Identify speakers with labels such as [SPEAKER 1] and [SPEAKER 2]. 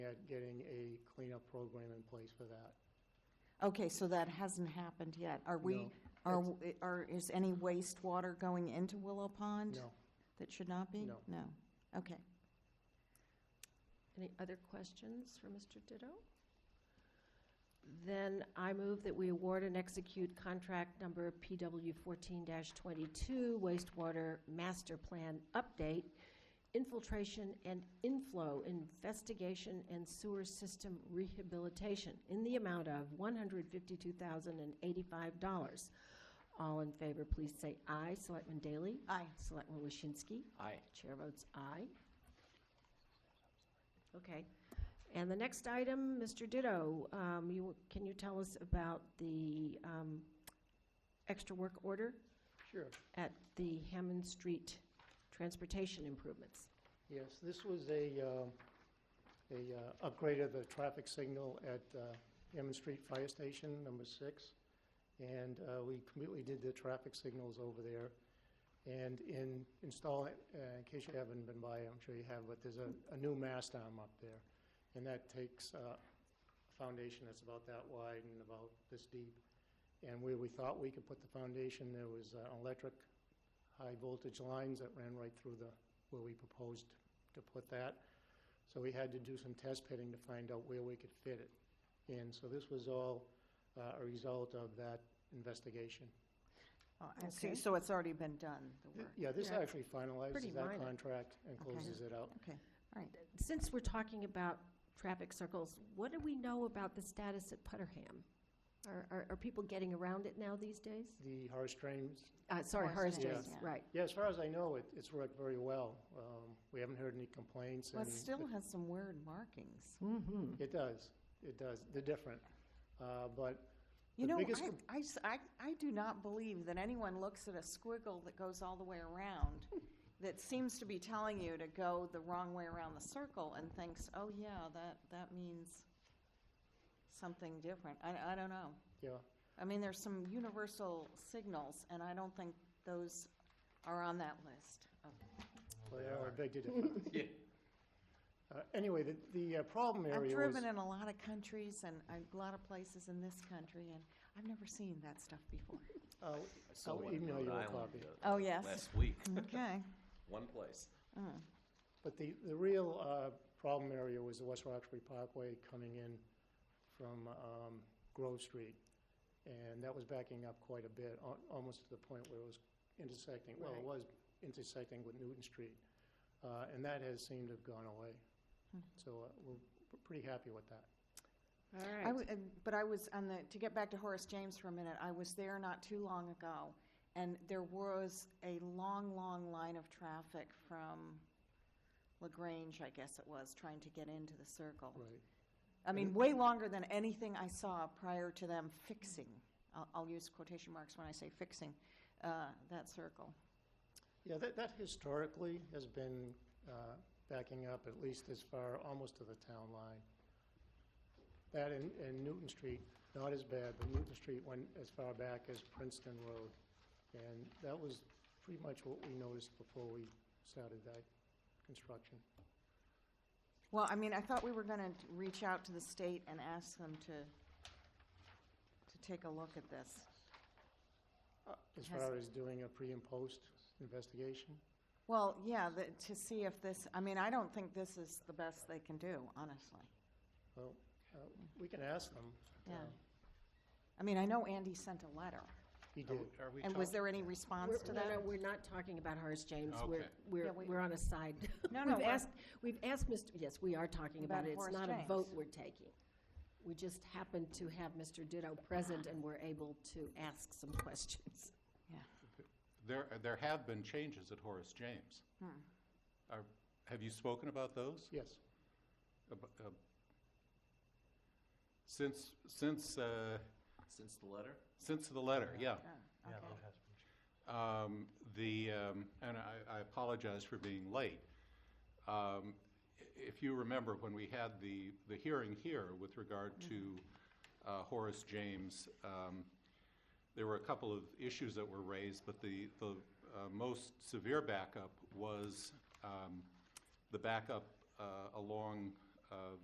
[SPEAKER 1] at getting a cleanup program in place for that.
[SPEAKER 2] Okay, so that hasn't happened yet. Are we,
[SPEAKER 1] No,
[SPEAKER 2] are, are, is any wastewater going into Willow Pond?
[SPEAKER 1] No,
[SPEAKER 2] That should not be?
[SPEAKER 1] No.
[SPEAKER 2] Okay.
[SPEAKER 3] Any other questions for Mr. Ditto? Then I move that we award and execute contract number PW fourteen twenty-two wastewater master plan update, infiltration and inflow investigation and sewer system rehabilitation in the amount of one hundred fifty-two thousand and eighty-five dollars. All in favor, please say aye. Selectman Daley?
[SPEAKER 2] Aye.
[SPEAKER 3] Selectman Waschinsky?
[SPEAKER 4] Aye.
[SPEAKER 3] Chair votes aye. Okay. And the next item, Mr. Ditto, um, you, can you tell us about the um, extra work order
[SPEAKER 1] sure.
[SPEAKER 3] at the Hammond Street Transportation Improvements?
[SPEAKER 1] Yes, this was a, uh, a uh, upgrade of the traffic signal at uh, Hammond Street Fire Station, number six. And uh, we completely did the traffic signals over there. And in installing, uh, in case you haven't been by, I'm sure you have, but there's a, a new mast arm up there. And that takes uh, a foundation that's about that wide and about this deep. And where we thought we could put the foundation, there was uh, electric high-voltage lines that ran right through the where we proposed to put that. So we had to do some test pitting to find out where we could fit it. And so this was all uh, a result of that investigation.
[SPEAKER 2] Oh, I see.
[SPEAKER 3] Okay.
[SPEAKER 2] So it's already been done, the work.
[SPEAKER 1] Yeah, this
[SPEAKER 3] Yeah.
[SPEAKER 1] actually
[SPEAKER 3] Pretty
[SPEAKER 1] finalizes that
[SPEAKER 3] minor.
[SPEAKER 1] contract and
[SPEAKER 2] Okay.
[SPEAKER 1] closes it out.
[SPEAKER 2] Okay, all right.
[SPEAKER 3] Since we're talking about traffic circles, what do we know about the status at Putterham? Are, are, are people getting around it now these days?
[SPEAKER 1] The Horace Trains,
[SPEAKER 3] Uh, Sorry,
[SPEAKER 2] Horace
[SPEAKER 3] Horace
[SPEAKER 1] Days,
[SPEAKER 3] Days,
[SPEAKER 2] yeah.
[SPEAKER 3] right.
[SPEAKER 1] yeah, as far as I know, it- it's worked very well. Um, We haven't heard any complaints.
[SPEAKER 2] Well, it
[SPEAKER 1] and
[SPEAKER 2] still
[SPEAKER 1] the-
[SPEAKER 2] has some weird markings.
[SPEAKER 4] Mm-hmm.
[SPEAKER 1] It does, it does. They're different. Uh, But
[SPEAKER 2] You
[SPEAKER 1] The
[SPEAKER 2] know,
[SPEAKER 1] biggest
[SPEAKER 2] I-
[SPEAKER 1] com-
[SPEAKER 2] I, s- I- I do not believe that anyone looks at a squiggle that goes all the way around, that seems to be telling you to go the wrong way around the circle and thinks, oh, yeah, that, that means something different. I, I don't know.
[SPEAKER 1] Yeah.
[SPEAKER 2] I mean, there's some universal signals, and I don't think those are on that list.
[SPEAKER 1] they are a big difference.
[SPEAKER 4] Yeah.
[SPEAKER 1] Uh, Anyway, the, the uh, problem area
[SPEAKER 2] I've
[SPEAKER 1] was.
[SPEAKER 2] driven in a lot of countries and a lot of places in this country, and I've never seen that stuff before.
[SPEAKER 1] Uh,
[SPEAKER 5] I saw
[SPEAKER 1] I'll
[SPEAKER 5] one in
[SPEAKER 1] email
[SPEAKER 5] Rhode
[SPEAKER 1] you a
[SPEAKER 5] Island
[SPEAKER 1] copy.
[SPEAKER 5] uh,
[SPEAKER 2] Oh, yes.
[SPEAKER 5] last week,
[SPEAKER 2] Okay.
[SPEAKER 5] one place.
[SPEAKER 2] Mm.
[SPEAKER 1] But the, the real uh, problem area was the West Roxbury Parkway coming in from um, Grove Street. And that was backing up quite a bit, al- almost to the point where it was intersecting, well, it
[SPEAKER 3] Right.
[SPEAKER 1] was intersecting with Newton Street. Uh, And that has seemed to have gone away. So uh, we're we're pretty happy with that.
[SPEAKER 3] All
[SPEAKER 2] I w- and- But I was on the, to get back to Horace James for a minute, I was there not too long ago, and there was a long, long line of traffic from LaGrange, I guess it was, trying to get into the circle.
[SPEAKER 1] Right.
[SPEAKER 2] I mean, way longer than anything I saw prior to them fixing, I'll, I'll use quotation marks when I say fixing, uh, that circle.
[SPEAKER 1] Yeah, that, that historically has been uh, backing up at least as far, almost to the town line. That and, and Newton Street, not as bad, but Newton Street went as far back as Princeton Road. And that was pretty much what we noticed before we started that construction.
[SPEAKER 2] Well, I mean, I thought we were gonna reach out to the state and ask them to, to take a look at this.
[SPEAKER 1] As
[SPEAKER 2] Uh, Has-
[SPEAKER 1] far as doing a pre and post investigation,
[SPEAKER 2] Well, yeah, the, to see if this, I mean, I don't think this is the best they can do, honestly.
[SPEAKER 1] well, uh, we can ask them.
[SPEAKER 2] Yeah.
[SPEAKER 1] Uh,
[SPEAKER 2] I mean, I know Andy sent a letter,
[SPEAKER 1] He did.
[SPEAKER 4] Are we
[SPEAKER 2] and
[SPEAKER 4] talking?
[SPEAKER 2] was there any response
[SPEAKER 3] We're-
[SPEAKER 2] to
[SPEAKER 3] No, no,
[SPEAKER 2] that?
[SPEAKER 3] we're not talking about Horace James. We're,
[SPEAKER 4] Okay.
[SPEAKER 2] Yeah,
[SPEAKER 3] we're,
[SPEAKER 2] we-
[SPEAKER 3] we're on a side.
[SPEAKER 2] No, no,
[SPEAKER 3] We've
[SPEAKER 2] we're-
[SPEAKER 3] asked, we've asked Mr., yes, we are talking about
[SPEAKER 2] About
[SPEAKER 3] it. It's
[SPEAKER 2] Horace
[SPEAKER 3] not a
[SPEAKER 2] James.
[SPEAKER 3] vote we're taking. We just happen to have Mr. Ditto present and we're able to ask some questions.
[SPEAKER 6] There, there have been changes at Horace James.
[SPEAKER 2] Hmm.
[SPEAKER 6] Are- Have you spoken about those?
[SPEAKER 1] Yes.
[SPEAKER 6] Ab- uh, Since, since, uh,
[SPEAKER 5] Since the letter,
[SPEAKER 6] since the letter, yeah.
[SPEAKER 2] Okay.
[SPEAKER 6] Um, The, um, and I I apologize for being late. Um, i- If you remember, when we had the, the hearing here with regard to uh, Horace James, um, there were a couple of issues that were raised, but the, the uh, most severe backup was um, the backup uh, along uh,